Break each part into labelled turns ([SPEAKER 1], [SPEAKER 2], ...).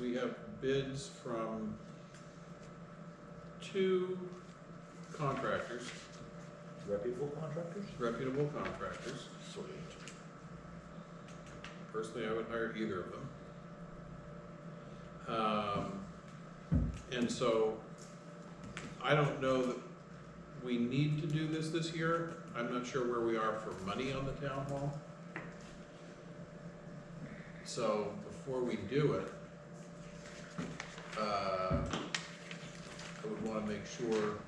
[SPEAKER 1] we have bids from two contractors,
[SPEAKER 2] Reputable contractors?
[SPEAKER 1] reputable contractors.
[SPEAKER 2] Sweet.
[SPEAKER 1] Personally, I wouldn't hire either of them. Um, and so, I don't know that we need to do this this year. I'm not sure where we are for money on the town hall. So, before we do it, uh, I would wanna make sure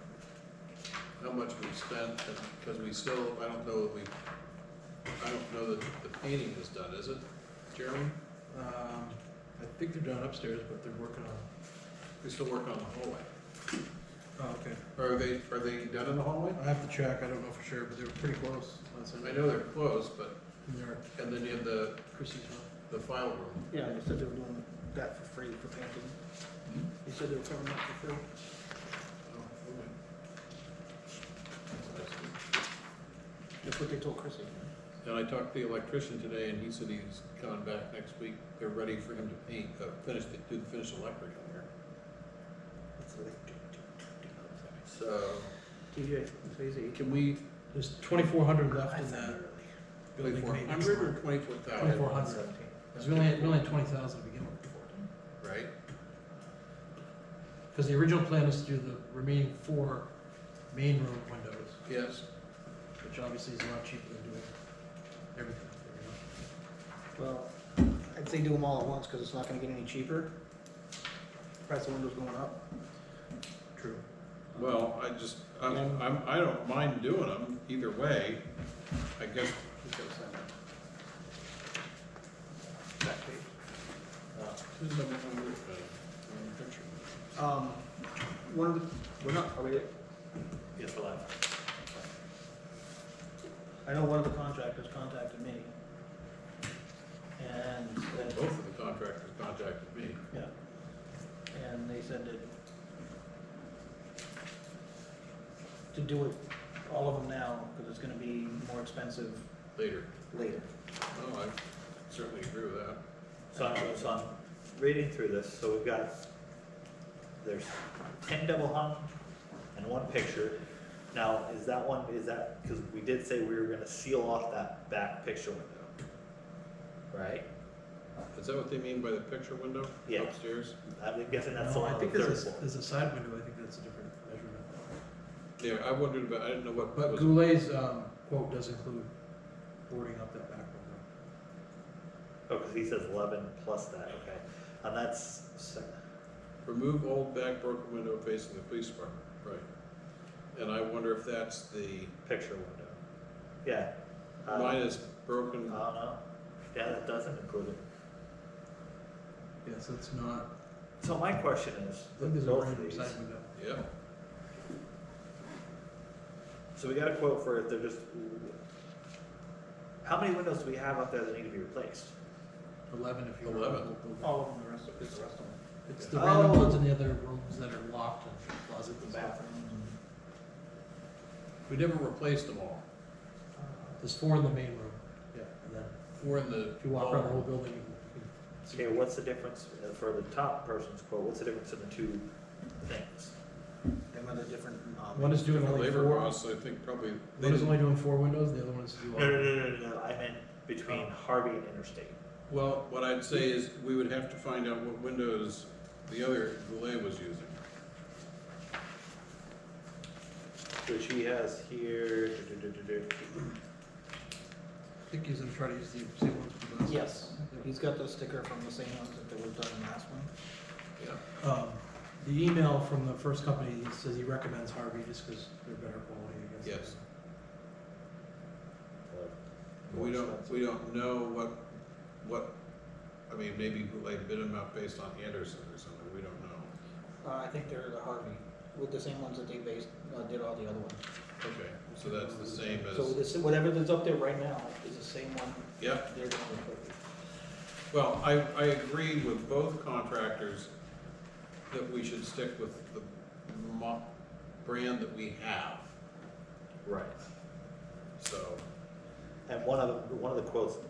[SPEAKER 1] how much we've spent, and- because we still, I don't know that we I don't know that the painting is done, is it, Jeremy?
[SPEAKER 3] Um, I think they're done upstairs, but they're working on.
[SPEAKER 1] We still work on the hallway.
[SPEAKER 3] Oh, okay.
[SPEAKER 1] Are they, are they done in the hallway?
[SPEAKER 3] I have to check. I don't know for sure, but they were pretty close on
[SPEAKER 1] I
[SPEAKER 3] Sunday.
[SPEAKER 1] know they're closed, but,
[SPEAKER 3] And they're
[SPEAKER 1] and then you have the,
[SPEAKER 3] Christie's room.
[SPEAKER 1] the file room.
[SPEAKER 4] Yeah, they said they were doing that for free for painting. They said they were covering that for free.
[SPEAKER 1] Oh, okay.
[SPEAKER 4] That's what they told Chrissy.
[SPEAKER 1] And I talked to the electrician today, and he said he's coming back next week, they're ready for him to paint, uh, finish, the do the finish electric on there. So,
[SPEAKER 4] TJ, it's easy.
[SPEAKER 1] can we,
[SPEAKER 3] There's twenty-four hundred left in that building
[SPEAKER 1] twenty-four
[SPEAKER 3] maintenance
[SPEAKER 1] hundred or
[SPEAKER 3] line.
[SPEAKER 1] twenty-four thousand,
[SPEAKER 3] Twenty-four hundred. It's really, really twenty thousand to begin with.
[SPEAKER 1] right?
[SPEAKER 3] Because the original plan is to do the remaining four main room windows,
[SPEAKER 1] Yes,
[SPEAKER 3] which obviously is a lot cheaper than doing everything. up there, you know?
[SPEAKER 4] Well, I'd say do them all at once, cause it's not gonna get any cheaper. Price of windows going up.
[SPEAKER 3] True.
[SPEAKER 1] Well, I just, I'm, I'm, I don't mind doing them either way, I guess.
[SPEAKER 4] Just gotta sign that.
[SPEAKER 1] that
[SPEAKER 4] Uh,
[SPEAKER 1] uh,
[SPEAKER 4] Um, one of the, we're not, are we,
[SPEAKER 2] Yes, for life.
[SPEAKER 4] I know one of the contractors contacted me. And
[SPEAKER 1] Both
[SPEAKER 4] said,
[SPEAKER 1] of the contractors contacted me.
[SPEAKER 4] yeah. And they said that to do it, all of them now, cause it's gonna be more expensive
[SPEAKER 1] later.
[SPEAKER 4] later.
[SPEAKER 1] Oh, I certainly agree with that.
[SPEAKER 2] So I'm, so I'm reading through this, so we've got, there's ten double hung and one picture. Now, is that one, is that, because we did say we were gonna seal off that back picture window. Right?
[SPEAKER 1] Is that what they mean by the picture window
[SPEAKER 2] Yeah.
[SPEAKER 1] upstairs?
[SPEAKER 2] I'm guessing that's the
[SPEAKER 3] No,
[SPEAKER 2] one
[SPEAKER 3] I
[SPEAKER 2] on
[SPEAKER 3] think
[SPEAKER 2] the third
[SPEAKER 3] there's a,
[SPEAKER 2] floor.
[SPEAKER 3] there's a side window, I think that's a different measurement.
[SPEAKER 1] Yeah, I wondered about, I didn't know what
[SPEAKER 3] But
[SPEAKER 1] was-
[SPEAKER 3] Goulet's, um, quote does include boarding up that back window.
[SPEAKER 2] Oh, because he says eleven plus that, okay. And that's, so-
[SPEAKER 1] remove old back broken window facing the police department, right. And I wonder if that's the
[SPEAKER 2] picture window. Yeah. Uh,
[SPEAKER 1] minus
[SPEAKER 2] I
[SPEAKER 1] broken,
[SPEAKER 2] don't know. Yeah, that doesn't include it.
[SPEAKER 3] Yeah, so it's not,
[SPEAKER 2] So my question is,
[SPEAKER 3] I think
[SPEAKER 2] with
[SPEAKER 3] there's a
[SPEAKER 2] both of
[SPEAKER 3] random
[SPEAKER 2] these,
[SPEAKER 3] side window.
[SPEAKER 1] yeah.
[SPEAKER 2] so we got a quote for it, they're just, how many windows do we have out there that need to be replaced?
[SPEAKER 3] Eleven if you're.
[SPEAKER 1] Eleven.
[SPEAKER 4] All of them, the rest of, it's the rest of them.
[SPEAKER 3] It's the random
[SPEAKER 2] Oh.
[SPEAKER 3] ones in the other rooms that are locked and closets
[SPEAKER 4] The
[SPEAKER 3] and stuff.
[SPEAKER 4] bathrooms
[SPEAKER 1] We never replaced them all.
[SPEAKER 4] and.
[SPEAKER 3] There's four in the main room, yeah, and then
[SPEAKER 1] Four in the.
[SPEAKER 3] if you walk around the whole building, you can.
[SPEAKER 2] Okay, what's the difference uh, for the top person's quote, what's the difference in the two things?
[SPEAKER 4] Them are the different, um.
[SPEAKER 3] One is doing
[SPEAKER 1] For
[SPEAKER 3] only
[SPEAKER 1] labor
[SPEAKER 3] four,
[SPEAKER 1] costs, I think probably. they
[SPEAKER 3] one is
[SPEAKER 1] didn't-
[SPEAKER 3] only doing four windows, the other one is doing.
[SPEAKER 2] No, no, no, no, no, I meant between Harvey and Interstate.
[SPEAKER 1] Well, what I'd say is we would have to find out what windows the other Goulet was using.
[SPEAKER 2] Which he has here,
[SPEAKER 3] I think he's gonna try to use the same ones for the last.
[SPEAKER 4] Yes, he's got the sticker from the same ones that they were done in the last one.
[SPEAKER 1] Yeah.
[SPEAKER 3] Um, the email from the first company he says he recommends Harvey just because they're better quality, I guess.
[SPEAKER 1] Yes. We don't, we don't know what, what, I mean, maybe Goulet bid them out based on Anderson or something, we don't know.
[SPEAKER 4] Uh, I think they're the Harvey, with the same ones that they based, uh, did all the other ones.
[SPEAKER 1] Okay, so that's the same
[SPEAKER 4] So
[SPEAKER 1] as,
[SPEAKER 4] this, whatever that's up there right now is the same one
[SPEAKER 1] yep,
[SPEAKER 4] they're gonna replace.
[SPEAKER 1] well, I, I agree with both contractors that we should stick with the mo- brand that we have,
[SPEAKER 2] Right.
[SPEAKER 1] so.
[SPEAKER 2] And one of, the- one of the quotes